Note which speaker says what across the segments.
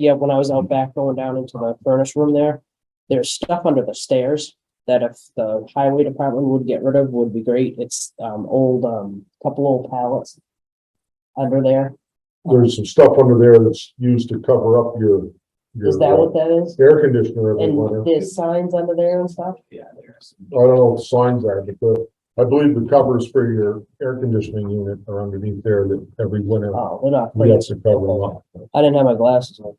Speaker 1: yeah, when I was out back going down into the furnace room there, there's stuff under the stairs that if the highway department would get rid of would be great. It's um old, um, couple old pallets under there.
Speaker 2: There's some stuff under there that's used to cover up your,
Speaker 1: Is that
Speaker 2: your
Speaker 1: what
Speaker 2: uh,
Speaker 1: that is?
Speaker 2: air conditioner every
Speaker 1: And
Speaker 2: winter.
Speaker 1: there's signs under there and stuff?
Speaker 3: Yeah, there's.
Speaker 2: I don't know what signs are, but the, I believe the covers for your air conditioning unit are underneath there that every winter
Speaker 1: Oh, they're not.
Speaker 2: we have to cover up.
Speaker 1: I didn't have my glasses on.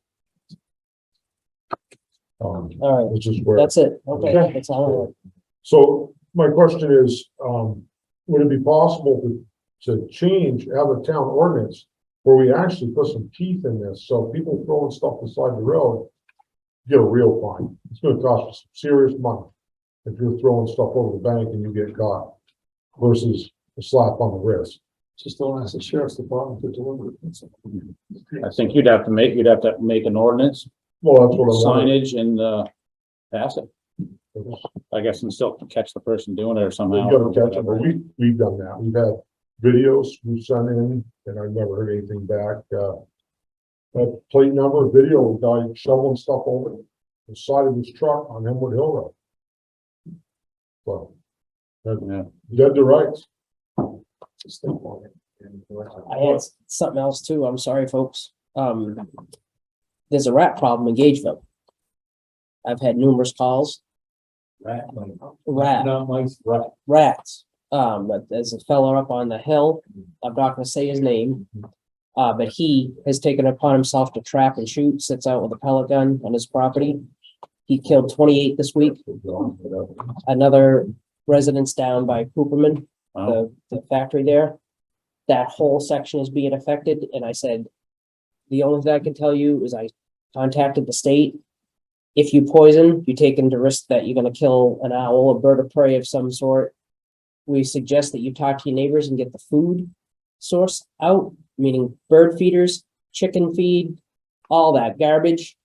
Speaker 2: Um,
Speaker 1: All right,
Speaker 2: which is where.
Speaker 1: that's it. Okay,
Speaker 2: Okay.
Speaker 1: that's all.
Speaker 2: So my question is, um, would it be possible to, to change, have a town ordinance where we actually put some teeth in this, so people throwing stuff beside the road, get a real fine. It's gonna cost you some serious money if you're throwing stuff over the bank and you get caught versus a slap on the wrist.
Speaker 3: Just don't ask the sheriff's department to deliver
Speaker 4: I think you'd have to make, you'd have to make an ordinance,
Speaker 2: Well, that's what I wanted.
Speaker 4: signage and, uh, pass it. I guess and still catch the person doing it or
Speaker 2: We
Speaker 4: somehow.
Speaker 2: gotta catch them, but we, we've done that. We've had videos we sent in and I've never heard anything back, uh. That plate number video guy shoveling stuff over the side of his truck on Hemwood Hill Road. So,
Speaker 4: Yeah.
Speaker 2: dead to rights.
Speaker 1: uh, I had s- something else too. I'm sorry, folks. Um, there's a rat problem in Gageville. I've had numerous calls,
Speaker 3: Rat,
Speaker 1: rat,
Speaker 3: not mice, rat.
Speaker 1: rats. Um, but there's a fella up on the hill.
Speaker 3: Mm-hmm.
Speaker 1: I'm not gonna say his name. Uh, but he has taken it upon himself to trap and shoot, sits out with a pellet gun on his property. He killed twenty-eight this week. another residence down by Cooperman,
Speaker 4: Wow.
Speaker 1: the, the factory there. That whole section is being affected, and I said, the only thing I can tell you is I contacted the state. If you poison, you take into risk that you're gonna kill an owl, a bird of prey of some sort. We suggest that you talk to your neighbors and get the food source out, meaning bird feeders, chicken feed, all that garbage,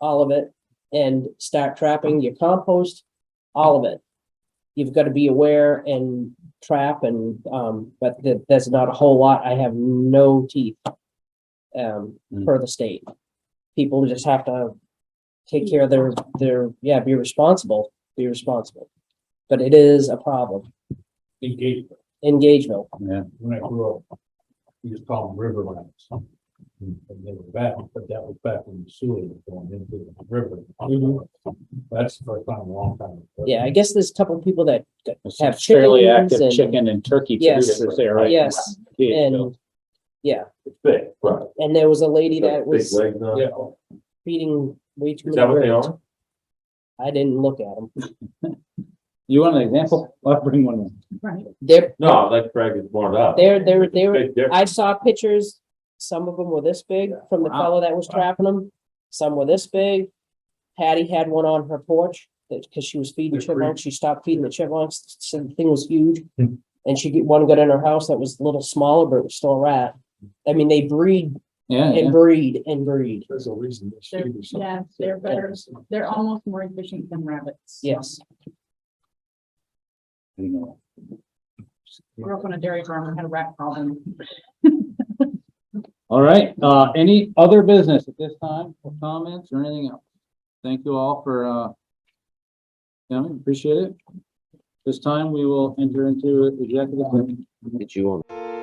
Speaker 1: all of it, and start trapping your compost, all of it. You've got to be aware and trap and, um, but th- there's not a whole lot. I have no teeth. Um,
Speaker 4: Mm.
Speaker 1: per the state. People just have to take care of their, their, yeah, be responsible, be responsible. But it is a problem.
Speaker 3: Engagement,
Speaker 1: Engagement.
Speaker 4: Yeah,
Speaker 3: when I grew up, we used to call them river rats.
Speaker 1: Oh.
Speaker 3: And they were back, but that was back when the sewer was going into the river. That's the first time, in a long time.
Speaker 1: Yeah, I guess there's a couple people that Have
Speaker 4: it's fairly
Speaker 1: chickens
Speaker 4: active
Speaker 1: and-
Speaker 4: chicken and turkey too,
Speaker 1: Yes.
Speaker 4: that's there, right?
Speaker 1: Yes,
Speaker 4: Yeah,
Speaker 1: and, yeah,
Speaker 5: It's big, right?
Speaker 1: and there was a lady that
Speaker 5: Big
Speaker 1: was
Speaker 5: legs on it.
Speaker 1: feeding way too
Speaker 5: Is that
Speaker 1: many
Speaker 5: what they
Speaker 1: birds.
Speaker 5: are?
Speaker 1: I didn't look at them.
Speaker 4: You want an example? I'll bring one in.
Speaker 1: They're,
Speaker 5: No, that Greg is more than that.
Speaker 1: they're, they're, they were,
Speaker 5: Big difference.
Speaker 1: I saw pictures, some of them were this big from the
Speaker 4: Wow.
Speaker 1: fellow that was trapping them, some were this big. Patty had one on her porch, that, cause she was feeding
Speaker 3: They're pretty-
Speaker 1: chipmunks, she stopped feeding the chipmunks, so the thing was huge.
Speaker 2: Hmm.
Speaker 1: And she get, one got in her house that was a little smaller, but it was still a rat. I mean, they breed
Speaker 4: Yeah, yeah.
Speaker 1: and breed and breed,
Speaker 3: There's a reason. they
Speaker 6: They're-
Speaker 3: shoot or something.
Speaker 6: Yeah, they're better, they're almost more efficient than rabbits.
Speaker 1: yes.
Speaker 4: You know,
Speaker 6: Grew up on a dairy farm and had a rat problem.
Speaker 4: All right, uh, any other business at this time, or comments or anything else? Thank you all for, uh, coming, appreciate it. This time, we will enter into executive. session.
Speaker 7: Did you want?